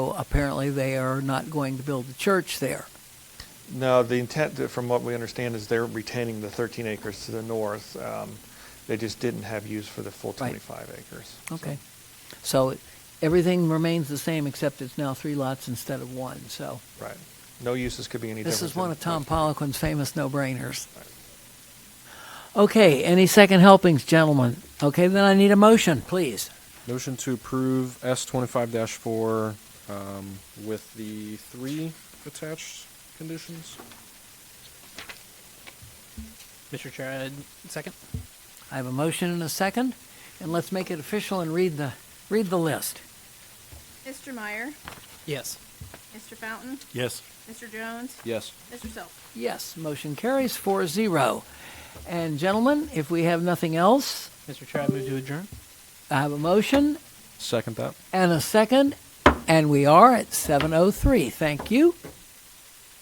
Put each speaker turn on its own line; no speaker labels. So apparently they are not going to build the church there.
No, the intent, uh, from what we understand, is they're retaining the 13 acres to the north. Um, They just didn't have use for the full
Right.
25 acres. so.
Okay. So it- everything remains the same except it's now three lots instead of one. So
Right. No uses could be any different.
this is
than-
one of Tom Poliquin's famous no-brainers.
Right.
Okay, any second helpings, gentlemen? Okay, then I need a motion, please.
Motion to approve S twenty-five four, um, with the three attached conditions?
Mr. Chair, I'd second.
I have a motion and a second, and let's make it official and read the, read the list.
Mr. Meyer,
Yes.
Mr. Fountain,
Yes.
Mr. Jones,
Yes.
Mr. Self.
Yes, motion carries 4-0. And gentlemen, if we have nothing else,
Mr. Chair, I move to adjourn.
I have a motion
Second that.
and a second, and we are at 7:03. Thank you.